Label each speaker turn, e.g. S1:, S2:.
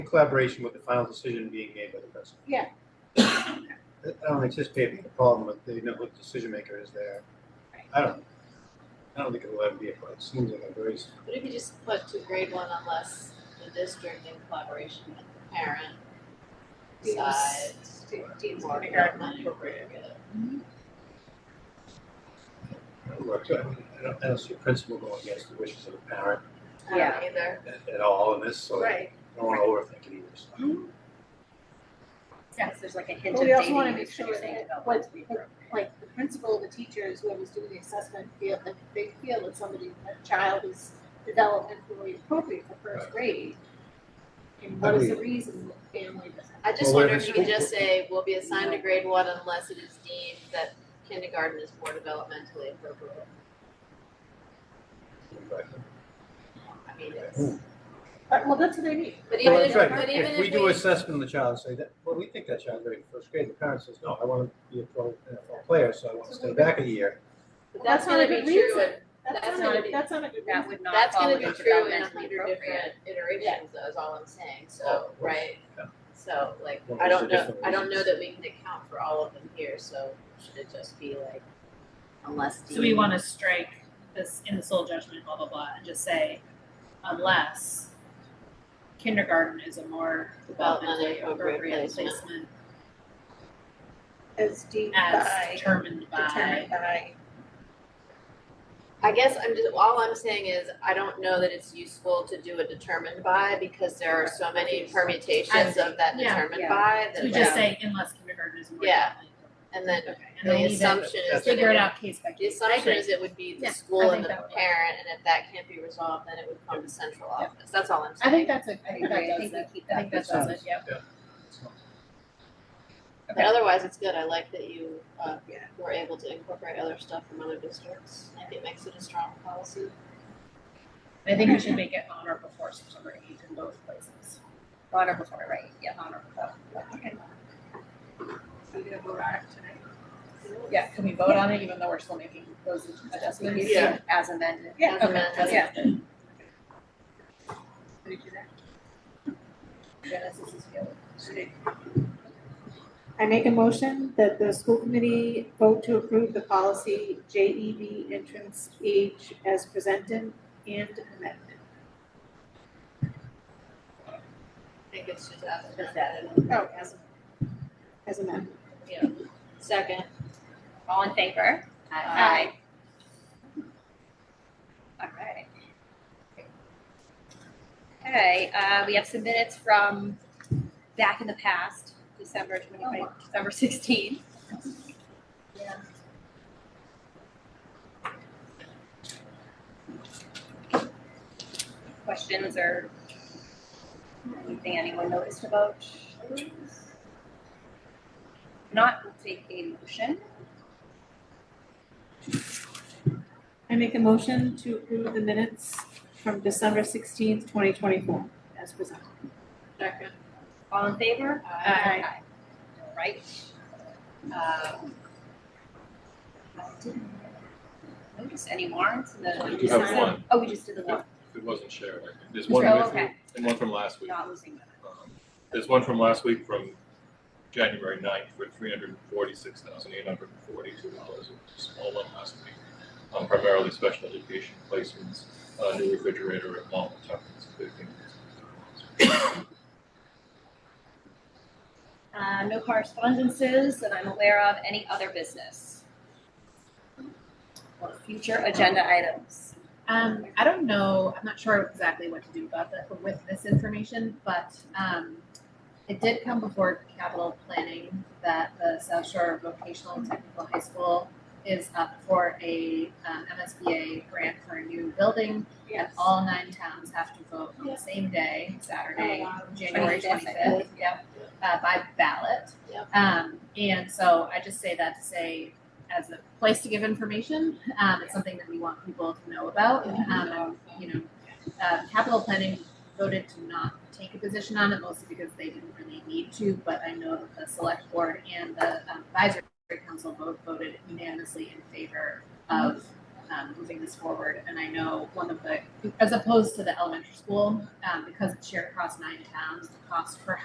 S1: in collaboration with the final decision being made by the president.
S2: Yeah.
S1: I don't anticipate being a problem with the, you know, what decision maker is there. I don't, I don't think it'll ever be a problem. It seems like a very, s-
S3: What if you just put to grade one unless the district in collaboration with the parent
S2: Yes.
S3: decides
S2: Dean's
S3: or
S2: kindergarten
S3: not
S2: appropriate.
S3: appropriate?
S1: I don't know, I don't, I don't see a principle going against the wishes of a parent
S3: I don't either.
S1: at, at all in this, so I
S2: Right,
S1: don't wanna overthink it either. so.
S4: Yes, there's like a hint
S2: But
S4: of
S2: we also
S4: dating
S2: wanna
S4: and
S2: make sure
S4: introducing
S2: that
S4: about
S2: what-
S4: what's the appropriate.
S2: like the principal, the teachers, whoever's doing the assessment feel that they feel that somebody, that child is developmentally appropriate for first
S1: Right.
S2: grade. And what is the reason the family doesn't?
S3: I just
S1: Well,
S3: wonder
S1: whatever
S3: if you could
S1: school-
S3: just say will be assigned a grade one unless it is deemed that kindergarten is more developmentally appropriate.
S1: But-
S3: I mean, it's,
S1: Hmm.
S2: But, well, that's what they need.
S3: but even
S1: Well,
S3: if,
S1: that's right.
S3: but even if
S1: If we do assessment of the child, say that, well, we think that child's ready for first grade, the parent says, no, I wanna be a pro NFL player, so I wanna stay back a year.
S3: but
S2: That's
S3: that's
S2: not a
S3: gonna
S2: good
S3: be true
S2: reason.
S3: in,
S2: That's
S3: That's
S2: not,
S3: gonna
S2: a-
S3: be-
S2: that's not a good
S4: That
S2: reason.
S4: would not
S3: that's
S4: fall
S3: gonna be
S4: under
S3: true in a
S4: developmentally
S3: hundred
S4: appropriate.
S3: different iterations though, is all I'm saying, so,
S1: Oh,
S3: right?
S1: yeah.
S3: So like,
S1: Well,
S3: I
S1: those are
S3: don't know,
S1: different
S3: I don't know
S1: reasons.
S3: that we can account for all of them here, so should it just be like unless deemed?
S5: So we wanna strike this in the sole judgment, blah, blah, blah, and just say unless kindergarten is a more
S3: Developmentally
S5: developmentally
S3: appropriate
S5: appropriate
S3: placement.
S5: placement
S2: As deep
S5: as
S2: by,
S5: determined by.
S2: determined by.
S3: I guess I'm just, all I'm saying is, I don't know that it's useful to do a determined by, because there are so many permutations of that
S5: Yeah,
S3: determined
S4: yeah.
S3: by
S5: So
S3: that.
S5: we just say unless kindergarten is more
S3: Yeah.
S5: developmentally appropriate.
S3: And then,
S5: Okay, and then
S3: the
S5: leave it,
S3: assumption
S1: That's
S3: is that
S5: figure
S3: it,
S5: it out case by
S3: the
S5: case.
S3: assumption is it would be
S5: Yeah,
S3: the
S5: I
S3: school and
S5: think
S3: the
S5: that would work.
S3: parent, and if that can't be resolved, then it would come to central
S5: Yeah.
S3: office, that's all I'm
S5: I
S3: saying.
S5: think that's a, I
S4: I
S5: think
S4: agree, I
S5: that
S4: think
S5: does
S4: we
S5: it.
S4: keep
S5: I
S4: that.
S5: think that does it, yep.
S3: But
S5: okay.
S3: otherwise, it's good, I like that you, uh,
S2: Yeah.
S3: were able to incorporate other stuff from other districts, I think it makes it a strong policy.
S5: I think we should make it on or before September eighth in both places.
S4: On or before, right, yeah, on or before.
S5: Yeah, can we vote on it even though we're still making those adjustments?
S3: Yeah.
S4: As amended.
S5: Yeah,
S3: As a
S5: okay,
S3: method.
S5: yeah.
S4: Genesis is good.
S2: I make a motion that the school committee vote to approve the policy JEB entrance age as presented and amended.
S3: I think it's just uh, as.
S4: Just added.
S2: Oh, as, as amended.
S3: Second,
S4: All in favor?
S3: Aye.
S4: All right. Okay, uh, we have some minutes from back in the past, December twenty twenty, December sixteen. Questions or anything anyone noticed about? those? Not we'll take a motion.
S2: I make a motion to approve the minutes from December sixteenth, twenty twenty-four, as presented.
S3: second.
S4: All in favor?
S2: Aye.
S4: All right. Um, I didn't Notice any warrants in the.
S6: We do have one.
S4: Oh, we just did the one.
S6: It wasn't shared. There's
S4: Oh,
S6: one with,
S4: okay,
S6: and one from last week.
S4: not losing that.
S6: Um, There's one from last week from January 9th for three hundred and forty-six thousand eight hundred and forty-two dollars. Small one last week. Um, primarily special education placements, uh, new refrigerator at Mall of Tuckers, fifteen.
S4: Uh, no correspondences that I'm aware of, any other business? Or future agenda items?
S5: Um, I don't know, I'm not sure exactly what to do about that with this information, but, um, it did come before capital planning that the South Shore Vocational and Technical High School is up for a, um, MSBA grant for a new building. And all nine towns have to vote on the same day, Saturday, January
S4: 25th, I
S5: twenty-fifth, yep, uh, by ballot.
S3: Yep.
S5: Um, and so I just say that to say, as a place to give information, um, it's something that we want people to know about. Um, and, you know, uh, capital planning voted to not take a position on it mostly because they didn't really need to, but I know that the select board and the um, advisory council both voted unanimously in favor of, um, moving this forward. And I know one of the, as opposed to the elementary school, um, because it's shared across nine towns, the cost per